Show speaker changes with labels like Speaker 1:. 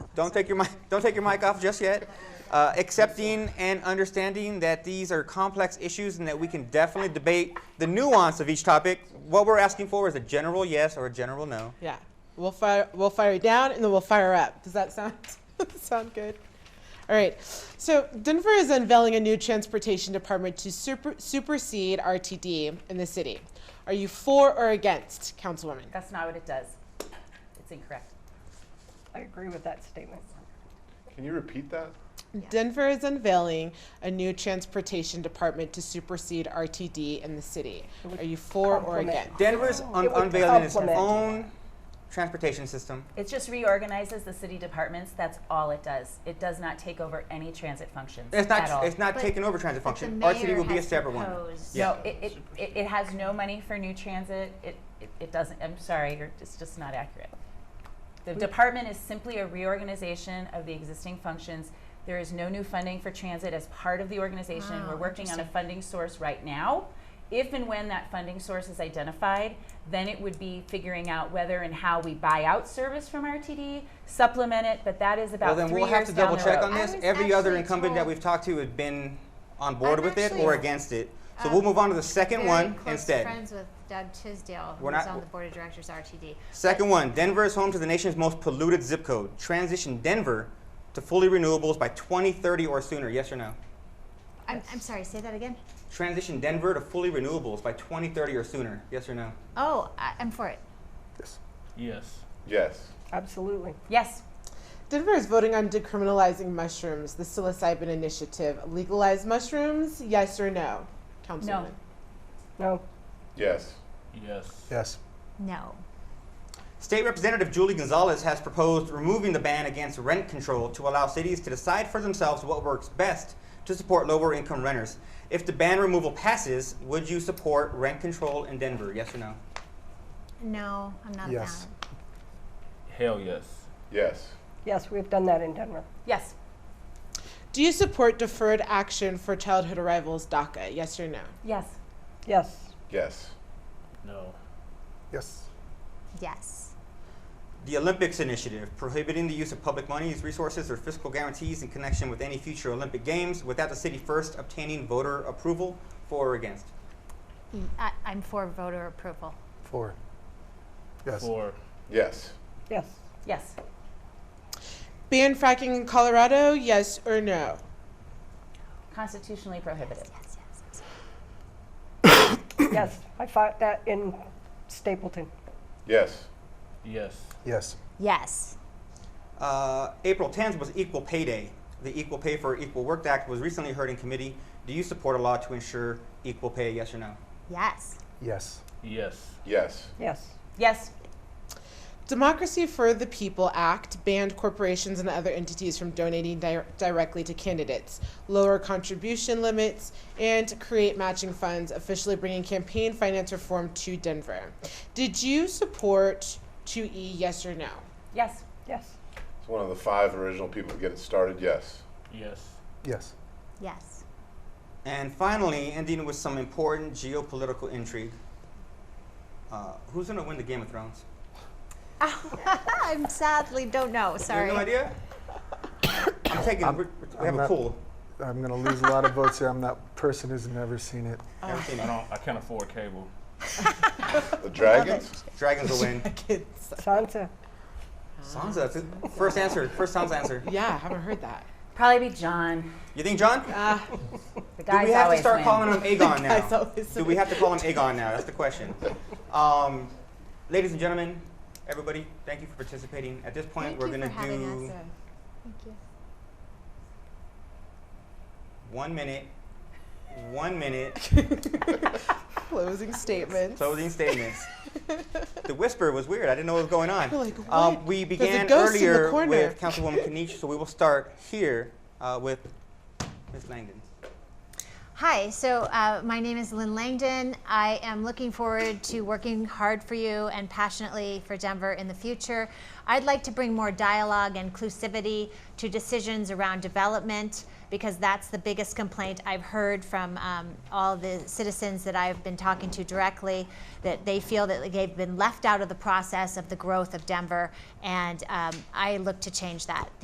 Speaker 1: Don't take your mic, don't take your mic off just yet. Uh, accepting and understanding that these are complex issues and that we can definitely debate the nuance of each topic. What we're asking for is a general yes or a general no.
Speaker 2: Yeah. We'll fire we'll fire it down and then we'll fire up. Does that sound sound good? All right. So Denver is unveiling a new transportation department to super, supersede RTD in the city. Are you for or against, Councilwoman?
Speaker 3: That's not what it does. It's incorrect.
Speaker 4: I agree with that statement.
Speaker 5: Can you repeat that?
Speaker 2: Denver is unveiling a new transportation department to supersede RTD in the city. Are you for or
Speaker 4: complement.
Speaker 2: against?
Speaker 1: Denver's un-
Speaker 4: It would
Speaker 1: unveiling its
Speaker 4: complement.
Speaker 1: own transportation system.
Speaker 3: It just reorganizes the city departments. That's all it does. It does not take over any transit functions
Speaker 1: It's
Speaker 3: at
Speaker 1: not,
Speaker 3: all.
Speaker 1: it's not
Speaker 6: But-
Speaker 1: taking over transit
Speaker 6: But the
Speaker 1: function. Our city
Speaker 6: mayor
Speaker 1: will be a
Speaker 6: has
Speaker 1: separate one.
Speaker 6: proposed-
Speaker 1: Yeah.
Speaker 3: no, it, it, it, it has no money for new transit. It, it, it doesn't. I'm sorry, you're, it's just not accurate. The department is simply a reorganization of the existing functions. There is no new funding for transit as part of the organization.
Speaker 6: Wow,
Speaker 3: We're working on a
Speaker 6: interesting.
Speaker 3: funding source right now. If and when that funding source is identified, then it would be figuring out whether and how we buy out service from RTD, supplement it, but that is
Speaker 1: Well,
Speaker 3: about
Speaker 1: then
Speaker 3: three
Speaker 1: we'll have
Speaker 3: years
Speaker 1: to
Speaker 3: down
Speaker 1: double
Speaker 3: the
Speaker 1: check
Speaker 3: road.
Speaker 1: on this.
Speaker 6: I was
Speaker 1: Every other
Speaker 6: actually
Speaker 1: incumbent that
Speaker 6: told-
Speaker 1: we've talked to has been on board
Speaker 6: I'm
Speaker 1: with it
Speaker 6: actually,
Speaker 1: or against it. So
Speaker 6: um,
Speaker 1: we'll move on to the second
Speaker 6: very
Speaker 1: one
Speaker 6: close
Speaker 1: instead.
Speaker 6: friends with Doug Tisdale,
Speaker 1: We're
Speaker 6: who's
Speaker 1: not-
Speaker 6: on the board of directors of RTD.
Speaker 1: Second one, Denver is home to the nation's most polluted zip code. Transition Denver to fully renewables by 2030 or sooner, yes or no?
Speaker 6: I'm, I'm sorry, say that again?
Speaker 1: Transition Denver to fully renewables by 2030 or sooner, yes or no?
Speaker 6: Oh, I, I'm for it.
Speaker 7: Yes.
Speaker 5: Yes.
Speaker 4: Absolutely.
Speaker 3: Yes.
Speaker 2: Denver is voting on decriminalizing mushrooms, the psilocybin initiative. Legalize mushrooms, yes or no? Councilwoman.
Speaker 4: No.
Speaker 5: Yes.
Speaker 7: Yes.
Speaker 8: Yes.
Speaker 6: No.
Speaker 1: State Representative Julie Gonzalez has proposed removing the ban against rent control to allow cities to decide for themselves what works best to support lower income renters. If the ban removal passes, would you support rent control in Denver? Yes or no?
Speaker 6: No, I'm not a
Speaker 8: Yes.
Speaker 6: fan.
Speaker 7: Hell yes.
Speaker 5: Yes.
Speaker 4: Yes, we have done that in Denver.
Speaker 3: Yes.
Speaker 2: Do you support deferred action for childhood arrivals, DACA, yes or no?
Speaker 3: Yes.
Speaker 4: Yes.
Speaker 5: Yes.
Speaker 7: No.
Speaker 8: Yes.
Speaker 6: Yes.
Speaker 1: The Olympics Initiative, prohibiting the use of public monies, resources, or fiscal guarantees in connection with any future Olympic Games without the city first obtaining voter approval for or against.
Speaker 6: E- I, am for voter approval.
Speaker 8: Four. Yes.
Speaker 7: Four.
Speaker 5: Yes.
Speaker 4: Yes.
Speaker 3: Yes.
Speaker 2: Ban fracking in Colorado, yes or no?
Speaker 3: Constitutionally prohibited.
Speaker 6: Yes, yes, yes.
Speaker 4: yes. I fought that in Stapleton.
Speaker 5: Yes.
Speaker 7: Yes.
Speaker 8: Yes.
Speaker 6: Yes.
Speaker 1: Uh, April 10th was Equal Pay Day. The Equal Pay for Equal Work Act was recently heard in committee. Do you support a law to ensure equal pay, yes or no?
Speaker 6: Yes.
Speaker 8: Yes.
Speaker 7: Yes.
Speaker 5: Yes.
Speaker 4: Yes.
Speaker 3: Yes.
Speaker 2: Democracy for the People Act banned corporations and other entities from donating di- directly to candidates, lower contribution limits, and create matching funds, officially bringing campaign finance reform to Denver. Did you support 2E, yes or no?
Speaker 3: Yes.
Speaker 4: Yes.
Speaker 5: It's one of the five original people to get it started. Yes.
Speaker 7: Yes.
Speaker 8: Yes.
Speaker 6: Yes.
Speaker 1: And finally, ending with some important geopolitical intrigue. Uh, who's going to win the Game of Thrones?
Speaker 6: I'm sadly don't know. Sorry.
Speaker 1: You have no idea? I'm taking,
Speaker 8: I'm-
Speaker 1: we're- we
Speaker 8: I'm
Speaker 1: have a
Speaker 8: not-
Speaker 1: pool.
Speaker 8: I'm gonna lose a lot of votes here. I'm that person who's never seen it.
Speaker 1: Haven't seen
Speaker 7: I
Speaker 1: it.
Speaker 7: don't. I can't afford cable.
Speaker 5: The dragons?
Speaker 1: Dragons will win.
Speaker 2: Kids.
Speaker 4: Sansa.
Speaker 1: Sansa, that's it. first answer, first Sansa answer.
Speaker 2: Yeah, I haven't heard that.
Speaker 3: Probably be John.
Speaker 1: You think, John?
Speaker 2: Uh,
Speaker 1: Do
Speaker 3: The guys
Speaker 1: we have to
Speaker 3: always
Speaker 1: start
Speaker 3: win.
Speaker 1: calling him Aegon now?
Speaker 2: Guys always
Speaker 1: Do we have to call him Aegon now? That's the question. Um, ladies and gentlemen, everybody, thank you for participating. At this point,
Speaker 6: Thank
Speaker 1: we're
Speaker 6: you
Speaker 1: going to
Speaker 6: for having
Speaker 1: do
Speaker 6: us. Thank you.
Speaker 1: one minute, one minute
Speaker 2: Closing statements.
Speaker 1: closing statements. the whisper was weird. I didn't know what was going on.
Speaker 2: We're like,
Speaker 1: Um,
Speaker 2: what?
Speaker 1: we
Speaker 2: There's a
Speaker 1: began
Speaker 2: ghost in the
Speaker 1: earlier
Speaker 2: corner.
Speaker 1: with Councilwoman Kanish, so we will start here uh, with Ms. Langdon.
Speaker 6: Hi, so uh, my name is Lynn Langdon. I am looking forward to working hard for you and passionately for Denver in the future. I'd like to bring more dialogue and inclusivity to decisions around development because that's the biggest complaint I've heard from um, all the citizens that I've been talking to directly that they feel that they've been left out of the process of the growth of Denver, and um, I look to change that.